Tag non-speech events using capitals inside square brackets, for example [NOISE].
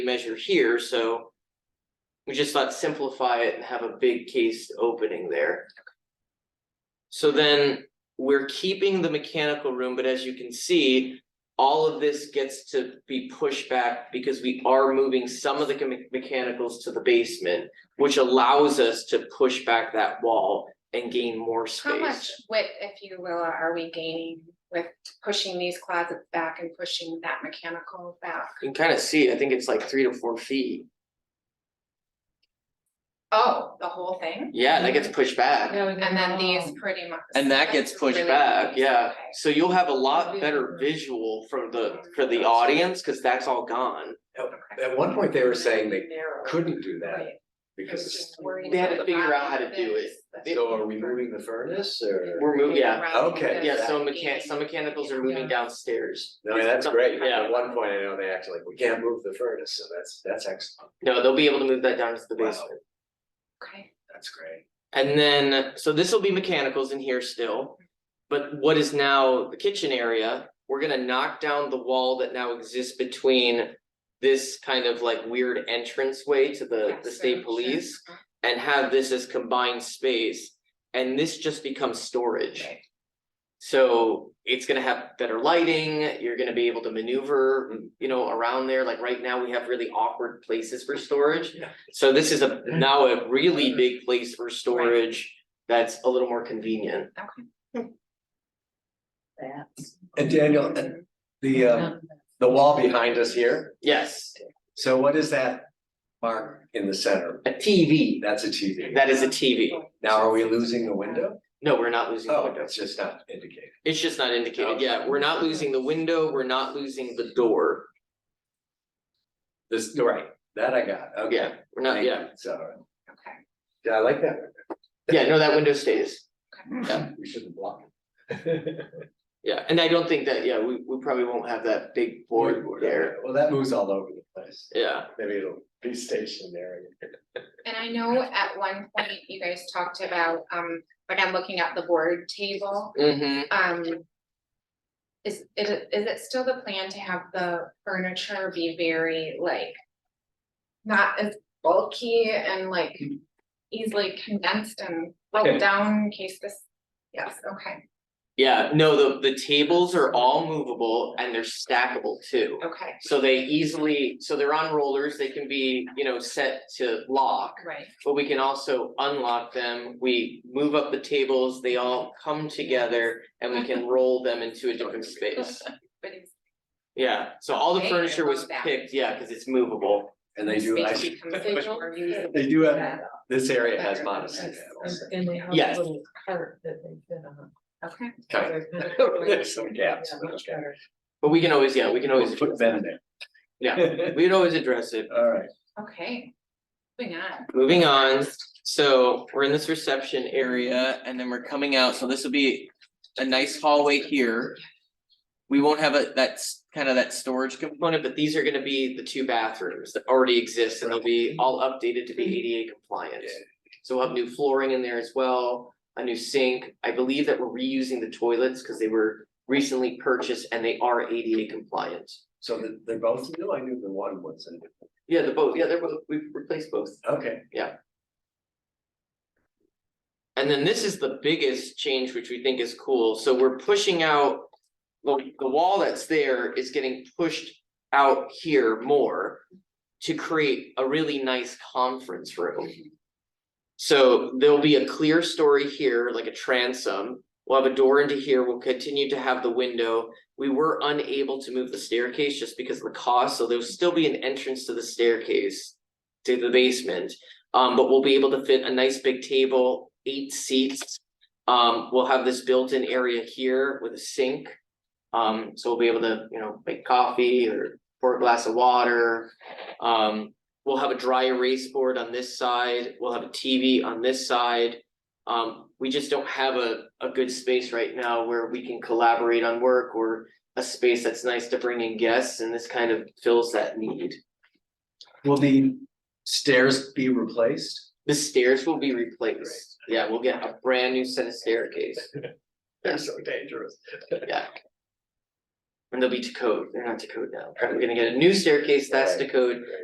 measure here, so. We just thought simplify it and have a big case opening there. So then we're keeping the mechanical room, but as you can see. All of this gets to be pushed back because we are moving some of the me- mechanicals to the basement. Which allows us to push back that wall and gain more space. How much width, if you will, are we gaining with pushing these closets back and pushing that mechanical back? You can kind of see, I think it's like three to four feet. Oh, the whole thing? Yeah, that gets pushed back. And then these pretty much. Oh. And that gets this is pushed really back, nice, yeah, okay. so you'll have a lot Visual. better visual from the, for the audience, cause that's all gone. Okay. At one point, they were saying they couldn't do that because it's, They had to figure out how to do it. They- so are we moving the furnace or? We're moving, yeah, Okay. yeah, so mechan- some mechanicals are moving Yeah. downstairs. No, that's great. Yeah. At one point, I know they actually, we can't move the furnace, so that's, that's excellent. No, they'll be able to move that down to the Wow. basement. Okay, That's great. And then, so this will be mechanicals in here still. But what is now the kitchen area, we're gonna knock down the wall that now exists between. This kind of like weird entranceway to the, yeah, the so state sure. police. and have this as combined space. And this just becomes storage. Right. So it's gonna have better lighting, you're gonna be able to maneuver, mm, you know, around there, like right now, we have really awkward places for storage. Yeah. So this is a, now a really big place for storage that's a little more convenient. Oh, And Daniel, and the, um, the wall behind us here, Yes, so what is that mark in the center? a TV, That's a TV. that is a TV. Now, are we losing the window? No, we're not losing the Oh, window. it's just not indicated. It's just not indicated, Okay. yeah, we're not losing the window, we're not losing the door. This, right, that I got, okay. Yeah, we're not, Thank you. yeah, So, Okay. yeah, I like that. yeah, no, that window stays. We shouldn't block it. Yeah, and I don't think that, yeah, we we probably won't have that big board there, [LAUGHS] Well, that moves all over the place. yeah, Maybe it'll be stationary. And I know at one point you guys talked about, um, like I'm looking at the board table. mm-hmm, um. Is it, is it still the plan to have the furniture be very like? Not as bulky and like easily condensed and Okay. broke down in case this, yes, okay, yeah, no, the the tables are all movable and they're stackable too. okay, So they easily, so they're on rollers, they can be, you know, set to lock, right, but we can also unlock them, we move up the tables, they all come together. And we [LAUGHS] can roll them into a different space, but it's. yeah, so all the Okay, I furniture was love that. picked, yeah, cause it's movable, And they do, I, space [LAUGHS] becomes more usable. they do have, this area has modest panels, And they have Yes. a little cart that they fit on. Okay, kind They're kind of, there's some gaps, Yeah, but much okay. better. but we can always, yeah, we can always, We'll Put them in there. Yeah. we'd always address it. [LAUGHS] All right, okay, moving on, Moving on, so we're in this reception area and then we're coming out, so this will be a nice hallway here. We won't have a, that's kind of that storage component, but these are gonna be the two bathrooms that already exist and they'll be all updated to be ADA compliant. Yeah. So we'll have new flooring in there as well, a new sink, I believe that we're reusing the toilets because they were recently purchased and they are ADA compliant. so the- they're both new, I knew the one wasn't, Yeah, the both, yeah, they're both, we've replaced both. okay. And then this is the biggest change, which we think is cool, so we're pushing out. The the wall that's there is getting pushed out here more. To create a really nice conference room. So there'll be a clear story here, like a transom. We'll have a door into here, we'll continue to have the window. We were unable to move the staircase just because of the cost, so there'll still be an entrance to the staircase. To the basement, um, but we'll be able to fit a nice big table, eight seats. Um, we'll have this built-in area here with a sink. Um, so we'll be able to, you know, make coffee or pour a glass of water. Um, we'll have a dry erase board on this side, we'll have a TV on this side. Um, we just don't have a, a good space right now where we can collaborate on work or a space that's nice to bring in guests, and this kind of fills that need. Will the stairs be replaced? The stairs will be replaced. Yeah, we'll get a brand new set of staircase. They're so dangerous. Yeah. And they'll be to code. They're not to code now. We're gonna get a new staircase, that's to code.